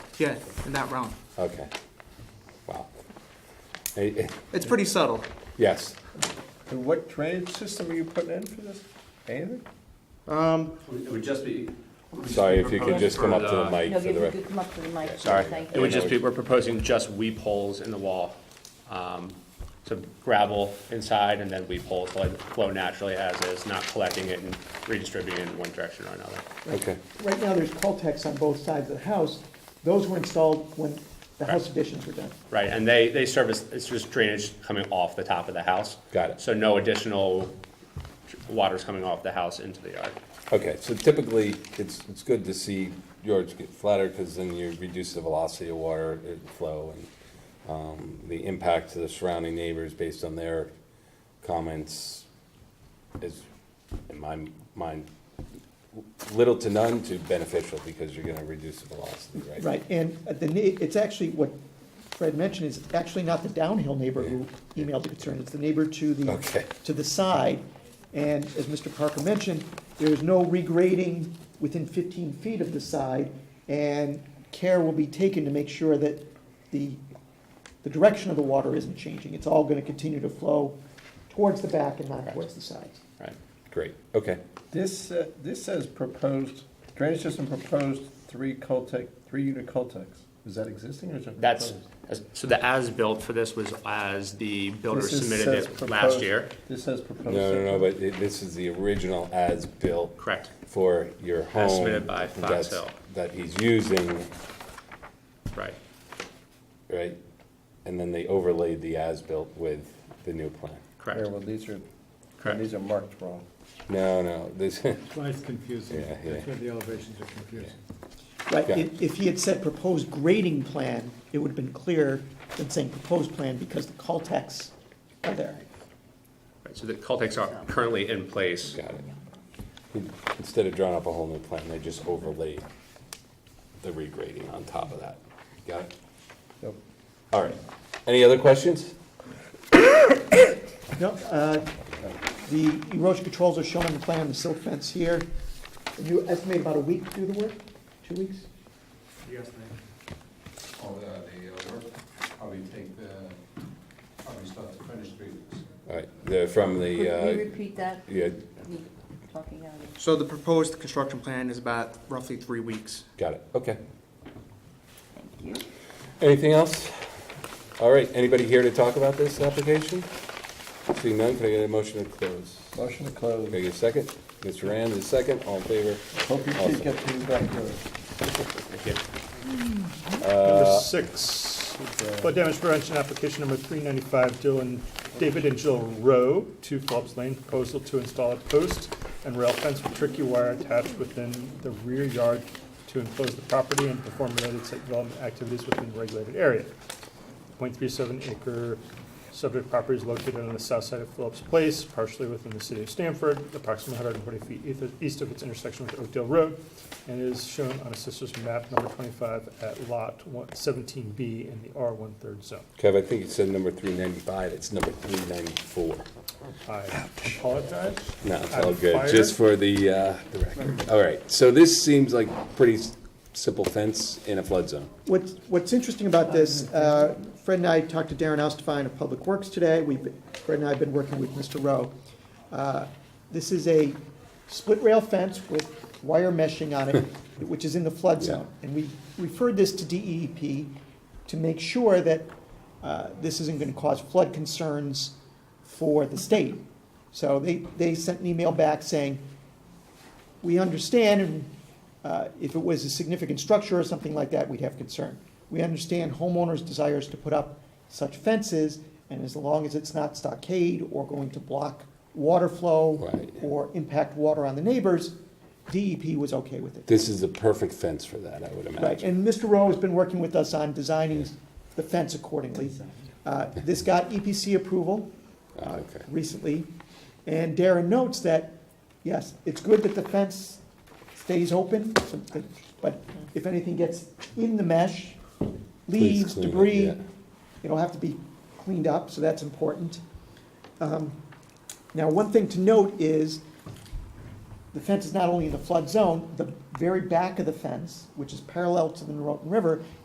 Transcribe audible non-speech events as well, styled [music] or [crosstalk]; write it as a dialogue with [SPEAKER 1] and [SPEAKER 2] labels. [SPEAKER 1] Yeah, in that realm.
[SPEAKER 2] Okay. Wow. Eh, eh,
[SPEAKER 1] It's pretty subtle.
[SPEAKER 2] Yes,
[SPEAKER 3] And what drainage system are you putting in for this? Anything?
[SPEAKER 4] It would just be.
[SPEAKER 2] sorry, if you could just come up to the mic
[SPEAKER 5] No,
[SPEAKER 2] for
[SPEAKER 5] you
[SPEAKER 2] the
[SPEAKER 5] you
[SPEAKER 2] record.
[SPEAKER 5] could come up to the mic.
[SPEAKER 2] Sorry.
[SPEAKER 5] Thank
[SPEAKER 4] It
[SPEAKER 5] you.
[SPEAKER 4] would just be, we're proposing just weep holes in the wall. um, So gravel inside and then weep holes, so like flow naturally as is, not collecting it and redistributing it in one direction or another.
[SPEAKER 2] Okay,
[SPEAKER 6] Right now, there's cul-de-sacs on both sides of the house. Those were installed when the house additions were done.
[SPEAKER 4] Right, and they, they service, it's just drainage coming off the top of the house.
[SPEAKER 2] Got it.
[SPEAKER 4] So no additional water's coming off the house into the yard.
[SPEAKER 2] okay, so typically, it's, it's good to see George get flatter, because then you reduce the velocity of water eh, flow and um, the impact to the surrounding neighbors based on their comments is, in my mind, little to none to beneficial, because you're gonna reduce the velocity, right?
[SPEAKER 6] Right, and at the, ne- it's actually, what Fred mentioned is actually not the downhill neighbor who emailed the concern, it's the neighbor to the,
[SPEAKER 2] Okay.
[SPEAKER 6] to the side. And as Mr. Parker mentioned, there is no regrading within fifteen feet of the side, and care will be taken to make sure that the, the direction of the water isn't changing. It's all gonna continue to flow towards the back and not towards the sides.
[SPEAKER 4] Right.
[SPEAKER 2] Great, okay.
[SPEAKER 3] This, uh, this says proposed, drainage system proposed three Cultec, three unit Cultecs. Is that existing or is it proposed?
[SPEAKER 4] That's, so the as-built for this was as the builder
[SPEAKER 3] This is-
[SPEAKER 4] submitted
[SPEAKER 3] says
[SPEAKER 4] it
[SPEAKER 3] proposed-
[SPEAKER 4] last year?
[SPEAKER 3] This says proposed.
[SPEAKER 2] No, no, no, but it- this is the original as-built.
[SPEAKER 4] Correct.
[SPEAKER 2] For your home.
[SPEAKER 4] submitted by Fox
[SPEAKER 2] that's-
[SPEAKER 4] Hill.
[SPEAKER 2] That he's using,
[SPEAKER 4] Right,
[SPEAKER 2] right? And then they overlaid the as-built with the new plan.
[SPEAKER 3] Here,
[SPEAKER 4] correct.
[SPEAKER 3] well, these are,
[SPEAKER 4] Correct.
[SPEAKER 3] these are marked wrong.
[SPEAKER 2] No, no, this, [laughs]
[SPEAKER 7] Why it's confusing.
[SPEAKER 2] Yeah, yeah.
[SPEAKER 7] That's why the elevations are confusing.
[SPEAKER 6] Right,
[SPEAKER 2] Yeah.
[SPEAKER 6] if, if he had said proposed grading plan, it would have been clearer than saying proposed plan because the call texts are there.
[SPEAKER 4] Right, So the Cultex are currently in place.
[SPEAKER 2] got it. Instead of drawing up a whole new plan, they just overlaid the regrading on top of that. Got it?
[SPEAKER 3] Yep.
[SPEAKER 2] All right. Any other questions?
[SPEAKER 6] No, uh, the erosion controls are shown on the plan, the silt fence here. And You estimate about a week to do the work, two weeks?
[SPEAKER 8] all the, the uh, work, probably take the, probably start to finish three weeks.
[SPEAKER 2] All right, the, from
[SPEAKER 5] Could
[SPEAKER 2] the,
[SPEAKER 5] you
[SPEAKER 2] uh,
[SPEAKER 5] repeat that?
[SPEAKER 2] yeah,
[SPEAKER 5] Me Talking out of.
[SPEAKER 1] So the proposed construction plan is about roughly three weeks.
[SPEAKER 2] got it, okay.
[SPEAKER 5] Thank you.
[SPEAKER 2] Anything else? All right, anybody here to talk about this application? Seeing none, can I get a motion to close?
[SPEAKER 3] Motion to
[SPEAKER 2] Can I
[SPEAKER 3] close.
[SPEAKER 2] get a second? Mr. Rand is second, all in favor?
[SPEAKER 3] Hope you kids
[SPEAKER 2] Awesome.
[SPEAKER 3] get these back there.
[SPEAKER 7] Number six, Uh, flood damage prevention application number three ninety-five, Dylan, David and Jill Rowe, two Phillips Lane, proposal to install a post and rail fence with tricky wire attached within the rear yard to enclose the property and perform related site development activities within the regulated area. 0.37 acre subject property is located on the south side of Phillips Place, partially within the city of Stamford, approximately 140 feet eith- east of its intersection with Oakdale Road, and is shown on Assessor's Map number 25 at Lot 17B in the R1 third zone.
[SPEAKER 2] Kev, I think you said number three ninety-five, it's number three ninety-four.
[SPEAKER 7] I apologize.
[SPEAKER 2] No, it's
[SPEAKER 7] I'm
[SPEAKER 2] all good,
[SPEAKER 7] fired.
[SPEAKER 2] just for the, uh, the record. All right, so this seems like pretty s- simple fence in a flood zone.
[SPEAKER 6] What's, what's interesting about this, uh, Fred and I talked to Darren Ostafine of Public Works today. We've, been- Fred and I have been working with Mr. Rowe. Uh, This is a split rail fence with wire meshing on it, which is in the flood zone. And we referred this to DEEP to make sure that uh, this isn't going to cause flood concerns for the state. So they, they sent an email back saying, we understand, and uh, if it was a significant structure or something like that, we'd have concern. We understand homeowners' desires to put up such fences, and as long as it's not stockade or going to block water flow
[SPEAKER 2] Right.
[SPEAKER 6] or impact water on the neighbors, DEP was okay with it.
[SPEAKER 2] This is a perfect fence for that, I would
[SPEAKER 6] Right,
[SPEAKER 2] imagine.
[SPEAKER 6] and Mr. Rowe has been working with us on designing the fence accordingly. Uh, This got EPC approval
[SPEAKER 2] Ah, Okay,
[SPEAKER 6] recently, and Darren notes that, yes, it's good that the fence stays open, so- but if anything gets in the mesh,
[SPEAKER 2] Please
[SPEAKER 6] leaves,
[SPEAKER 2] clean it,
[SPEAKER 6] debris,
[SPEAKER 2] yeah.
[SPEAKER 6] it'll have to be cleaned up, so that's important. Um, Now, one thing to note is, the fence is not only in the flood zone, the very back of the fence, which is parallel to the Norotan River,